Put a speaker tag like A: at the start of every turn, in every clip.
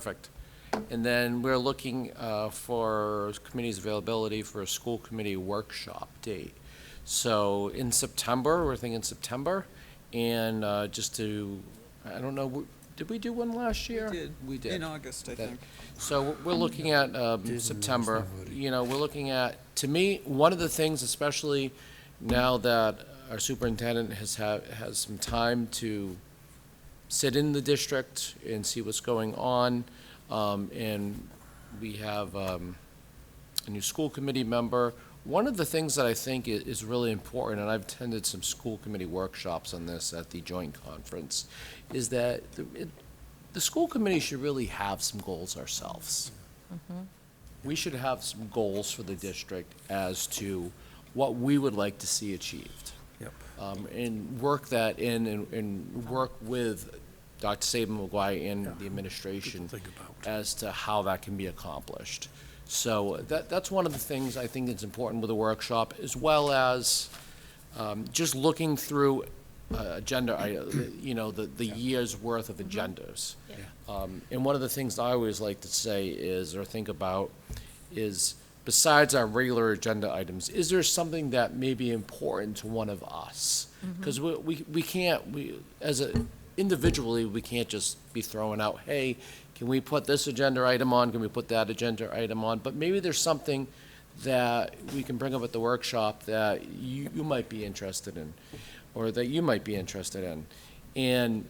A: Perfect. And then we're looking uh, for committee's availability for a school committee workshop date. So in September, we're thinking September, and uh, just to, I don't know, w- did we do one last year? We did.
B: In August, I
A: That-
B: think.
A: So we're- we're looking at um, September, you know, we're looking at, to me, one of the things, especially now that our superintendent has had, has some time to sit in the district and see what's going on, um, and we have um, a new school committee member. One of the things that I think i- is really important, and I've attended some school committee workshops on this at the joint conference, is that the- it- the school committee should really have some goals ourselves.
C: Mm-hmm.
A: We should have some goals for the district as to what we would like to see achieved.
C: Yep.
A: Um, and work that in and, and work with Dr. Saban McGuire and the administration
C: Think about.
A: as to how that can be accomplished. So that, that's one of the things I think that's important with the workshop, as well as um, just looking through uh, agenda, I- you know, the, the year's worth
C: Mm-hmm.
A: of agendas. Um, And one of the things I always like to say is, or think about, is besides our regular agenda items, is there something that may be important to one of us? Because we, we we can't, we, as a, individually, we can't just be throwing out, hey, can we put this agenda item on, can we put that agenda item on? But maybe there's something that we can bring up at the workshop that you, you might be interested in, or that you might be interested in. And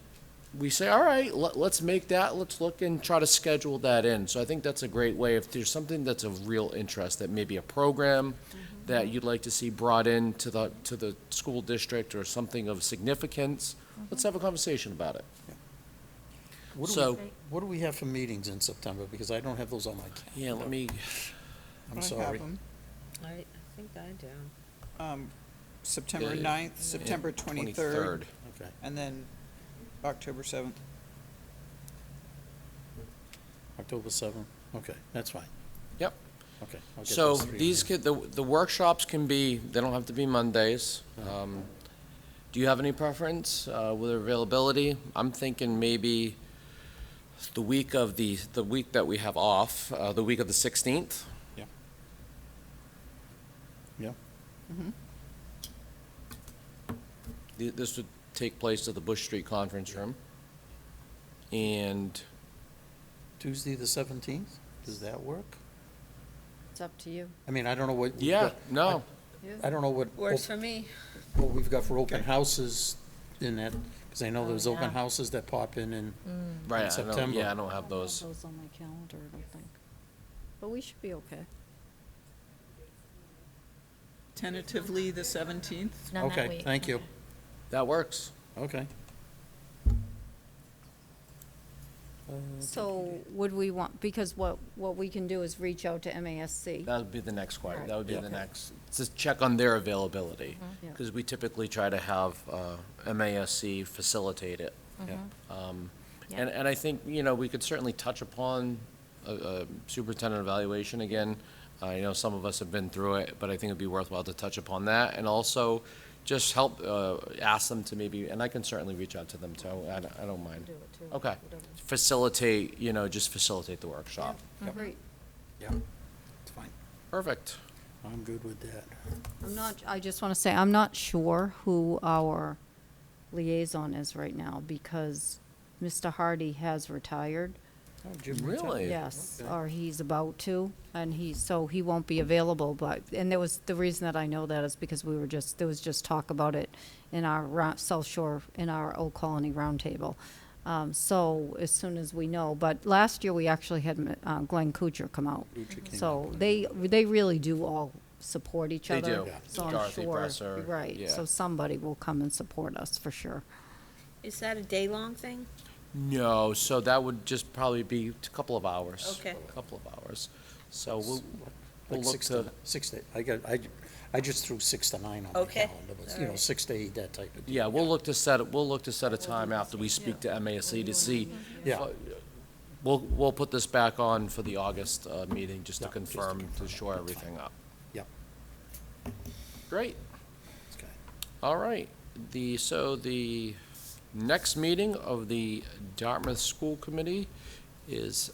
A: we say, all right, let, let's make that, let's look and try to schedule that in. So I think that's a great way, if there's something that's of real interest, that maybe a program that you'd like to see brought in to the, to the school district or something of significance, let's have a conversation about it.
C: What do we-
A: So-
C: What do we have for meetings in September? Because I don't have those on my calendar.
A: Yeah, let me,
C: I'm
B: I
C: sorry.
B: have 'em.
D: I, I think I do.
B: Um, September
A: Yeah.
B: 9th, September 23rd,
A: twenty-third.
C: Okay.
B: and then October 7th.
C: October seventh. Okay, that's fine.
A: Yep.
C: Okay. I'll get
A: So
C: those three
A: these
C: in.
A: could, the, the workshops can be, they don't have to be Mondays. Um, Do you have any preference uh, with availability? I'm thinking maybe the week of the, the week that we have off, uh, the week of the 16th.
C: Yeah,
A: Th- This would take place at the Bush Street Conference Room. And
C: Tuesday the seventeenth? Does that work?
D: It's up to you.
C: I mean, I don't know what. we've
A: Yeah,
C: got-
A: no.
C: I don't know what,
D: Works
C: op-
D: for me.
C: what we've got for open houses in that, because I know
D: Oh,
C: there's open
D: yeah.
C: houses that pop in and,
A: Right, I don't-
C: September.
A: Yeah, I don't have those.
E: Those on my calendar, I don't think.
D: But we should be okay.
B: Tentatively, the 17th.
F: None that
C: okay,
F: week.
C: thank you.
A: That works.
C: Okay.
E: So would we want, because what, what we can do is reach out to MASC.
A: That would be the next question, that would be
C: Right.
A: the
C: Yeah.
A: next, just check on their availability,
E: Yeah.
A: because we typically try to have uh, MASC facilitate it.
C: Yeah.
A: Um,
F: Yeah.
A: And, and I think, you know, we could certainly touch upon uh, uh, superintendent evaluation again. I know some of us have been through it, but I think it'd be worthwhile to touch upon that, and also just help, uh, ask them to maybe, and I can certainly reach out to them too, I don't, I don't mind.
D: Do it too.
A: Okay, facilitate, you know, just facilitate the workshop.
E: Great.
C: Yeah, it's fine.
A: Perfect.
C: I'm good with that.
E: I'm not, I just want to say, I'm not sure who our liaison is right now because Mr. Hardy has retired.
C: Oh, Jim, reach out.
A: Really?
E: Yes,
C: Okay.
E: or he's about to, and he, so he won't be available, but, and there was, the reason that I know that is because we were just, there was just talk about it in our rou- South Shore, in our Old Colony Roundtable. Um, so as soon as we know, but last year we actually had uh, Glenn Kuchar come out.
C: Kuchar came
E: So they, they really do all support each
A: They
E: other.
A: do. Yeah.
E: So I'm
A: Dorothy
E: sure,
A: Bresser, yeah.
E: right, so somebody will come and support us for sure.
D: Is that a day-long thing?
A: No, so that would just probably be a couple of hours.
D: Okay.
A: A Couple of hours. So Oh, we'll, we'll
C: Like
A: look
C: six to,
A: to,
C: six to, I got, I, I just threw six to nine on my
D: Okay,
C: calendar, but, you know,
D: alright.
C: six to eight, that type of deal.
A: yeah, we'll look to set, we'll look to set a time after we speak to MASC E to see. uh,
C: Yeah,
A: We'll, we'll put this back on for the August uh, meeting, just to
C: Yeah, just to
A: confirm, to
C: confirm.
A: shore
C: That's
A: everything up.
C: yeah,
A: Great,
C: okay.
A: all right. The, so the next meeting of the Dartmouth School Committee is